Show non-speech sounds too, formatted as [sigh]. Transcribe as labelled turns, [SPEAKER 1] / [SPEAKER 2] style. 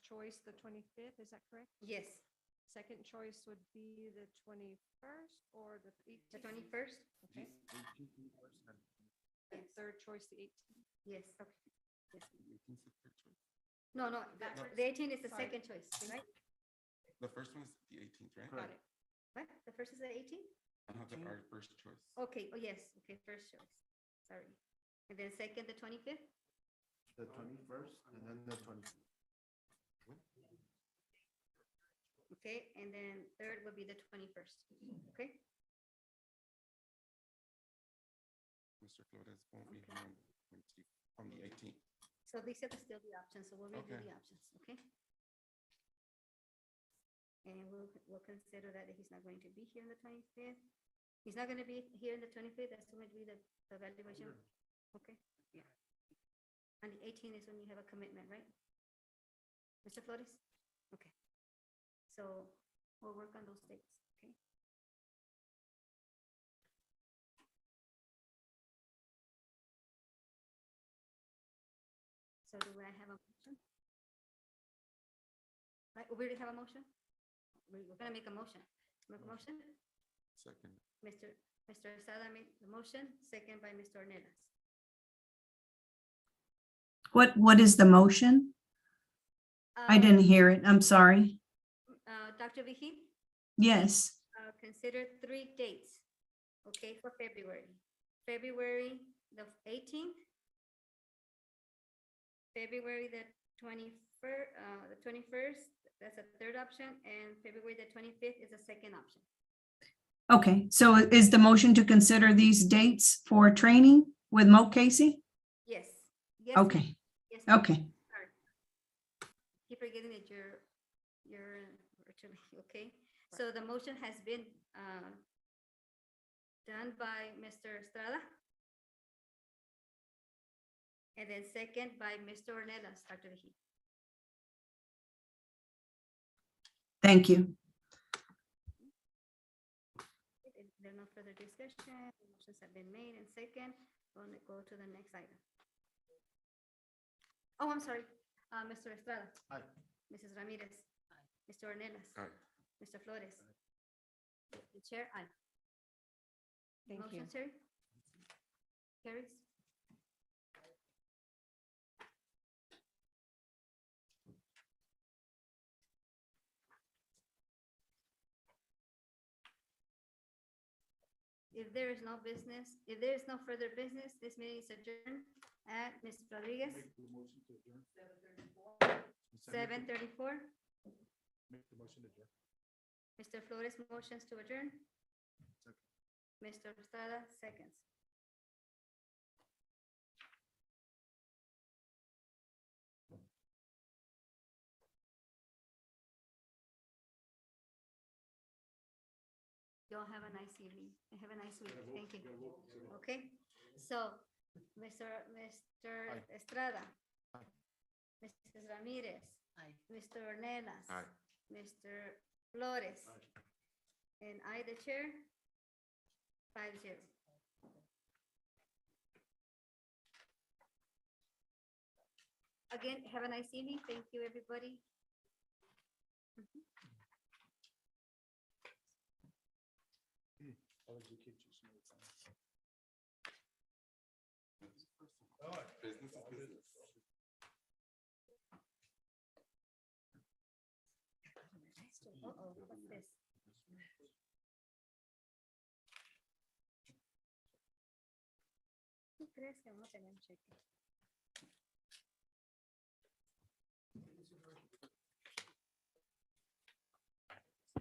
[SPEAKER 1] choice the twenty-fifth, is that correct?
[SPEAKER 2] Yes,
[SPEAKER 1] Second choice would be the twenty-first or the
[SPEAKER 2] the
[SPEAKER 1] eighteenth?
[SPEAKER 2] twenty-first?
[SPEAKER 1] Okay, and third choice the eighteenth.
[SPEAKER 2] Yes, okay. Yes. No, no, the- the eighteen is the
[SPEAKER 1] Sorry.
[SPEAKER 2] second choice, right?
[SPEAKER 3] The first one is the eighteenth, right?
[SPEAKER 1] Got it.
[SPEAKER 2] What? The first is the eighteen?
[SPEAKER 3] I have the- our first choice.
[SPEAKER 2] Okay, oh, yes, okay, first choice, sorry. And then second, the twenty-fifth?
[SPEAKER 4] The twenty-first and then the twenty.
[SPEAKER 2] Okay, and then third will be the twenty-first, okay?
[SPEAKER 3] Mr. Flores won't be
[SPEAKER 2] Okay.
[SPEAKER 3] here on the 20 on the eighteenth.
[SPEAKER 2] So these are the- still the options, so we'll review
[SPEAKER 3] Okay.
[SPEAKER 2] the options, okay? And we'll, we'll consider that he's not going to be here on the twenty-fifth. He's not gonna be here on the twenty-fifth, that's when we do the the evaluation, okay? Yeah. And the eighteen is when you have a commitment, right? Mr. Flores? Okay. So we'll work on those dates, okay? So do I have a motion? Right, we already have a motion? We- We're gonna make a motion. Make a motion?
[SPEAKER 3] Second,
[SPEAKER 2] Mr. Mr. Sada made the motion, second by Mr. Ornelas.
[SPEAKER 5] What, what is the motion? I
[SPEAKER 2] Uh,
[SPEAKER 5] didn't hear it. I'm sorry.
[SPEAKER 2] Uh, Dr. Vihi,
[SPEAKER 5] Yes,
[SPEAKER 2] uh, consider three dates, okay, for February. February the eighteenth, February the twenty-first, uh, the twenty-first, that's a third option, and February the twenty-fifth is the second option.
[SPEAKER 5] okay. So i- is the motion to consider these dates for training with Mo Casey?
[SPEAKER 2] Yes. Yes, ma'am.
[SPEAKER 5] Okay,
[SPEAKER 2] Yes, ma'am.
[SPEAKER 5] okay.
[SPEAKER 2] Keep forgetting that you're, you're virtually, [laughs] okay? So the motion has been uh, done by Mr. Estrada. And then second by Mr. Ornelas, Dr. Mejia.
[SPEAKER 5] Thank you.
[SPEAKER 2] If there are no further discussion, the motions have been made and second, we'll n- go to the next item. Oh, I'm sorry, Uh, Mr. Estrada.
[SPEAKER 4] Aye.
[SPEAKER 2] Mrs. Ramirez. Mr. Ornelas.
[SPEAKER 3] aye.
[SPEAKER 2] Mr. Flores. The chair, aye.
[SPEAKER 1] Thank you.
[SPEAKER 2] Motion, sir? Carries? If there is no business, if there is no further business, this meeting is adjourned at Ms. Rodriguez, seven thirty-four.
[SPEAKER 4] Make the motion to adjourn.
[SPEAKER 2] Mr. Flores motions to adjourn.
[SPEAKER 4] Second.
[SPEAKER 2] Mr. Estrada seconds. Y'all have a nice evening. Have a nice week. Thank you. Okay, so Mr. Mr.
[SPEAKER 4] Aye.
[SPEAKER 2] Estrada.
[SPEAKER 4] Aye.
[SPEAKER 2] Mrs. Ramirez.
[SPEAKER 6] Aye.
[SPEAKER 2] Mr. Ornelas.
[SPEAKER 3] Aye.
[SPEAKER 2] Mr. Flores.
[SPEAKER 4] Aye.
[SPEAKER 2] And I, the chair, five zero. Again, have a nice evening. Thank you, everybody.
[SPEAKER 3] Business is business.
[SPEAKER 2] Uh-oh, what's this? ¿Tú crees que vamos a tener un cheque?